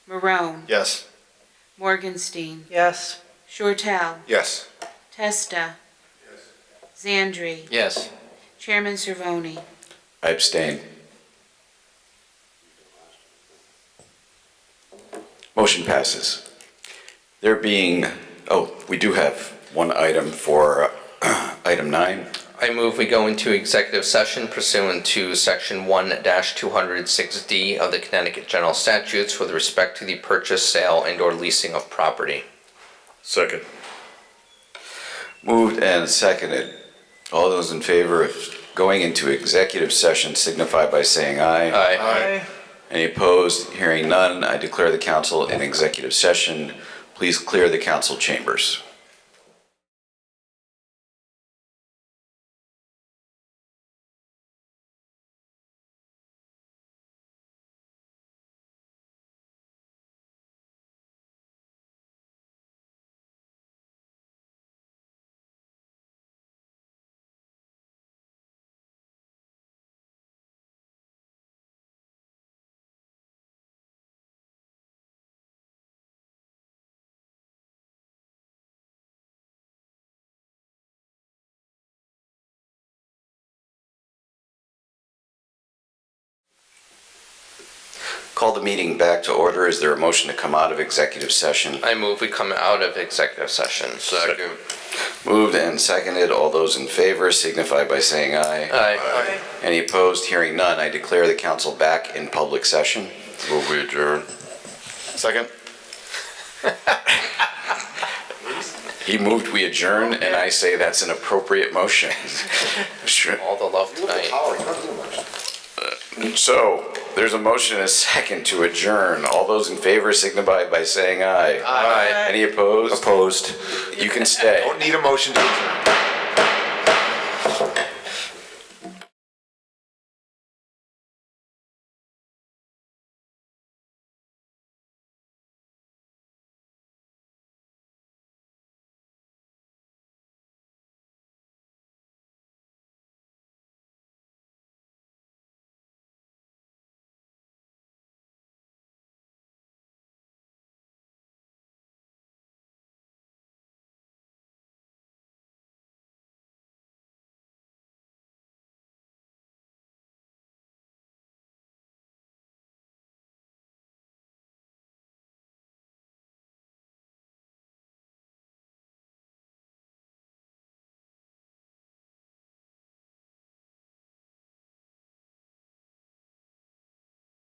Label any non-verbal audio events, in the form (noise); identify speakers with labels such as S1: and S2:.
S1: Marone,
S2: Yes.
S1: Morgenstein,
S3: Yes.
S1: Shortell,
S2: Yes.
S1: Testa. Zandri,
S4: Yes.
S1: Chairman Cervoni.
S5: I abstain. Motion passes. There being, oh, we do have one item for uh, (clears throat) item nine.
S4: I move we go into executive session pursuant to Section 1-206D of the Connecticut General Statutes with respect to the purchase, sale, and/or leasing of property.
S2: Second.
S5: Moved and seconded. All those in favor of going into executive session signify by saying aye.
S4: Aye.
S5: Any opposed? Hearing none, I declare the council in executive session. Please clear the council chambers. Call the meeting back to order. Is there a motion to come out of executive session?
S4: I move we come out of executive session.
S2: Second.
S5: Moved and seconded. All those in favor signify by saying aye.
S4: Aye.
S5: Any opposed? Hearing none, I declare the council back in public session.
S2: Move we adjourn. Second.
S5: He moved, we adjourn, and I say that's an appropriate
S2: (laughs)
S5: motion. Sure.
S4: All the love tonight.
S5: So, there's a motion and a second to adjourn. All those in favor signify by saying aye.
S4: Aye.
S5: Any opposed?
S2: Opposed.
S5: You can stay.
S2: Don't need a motion to adjourn.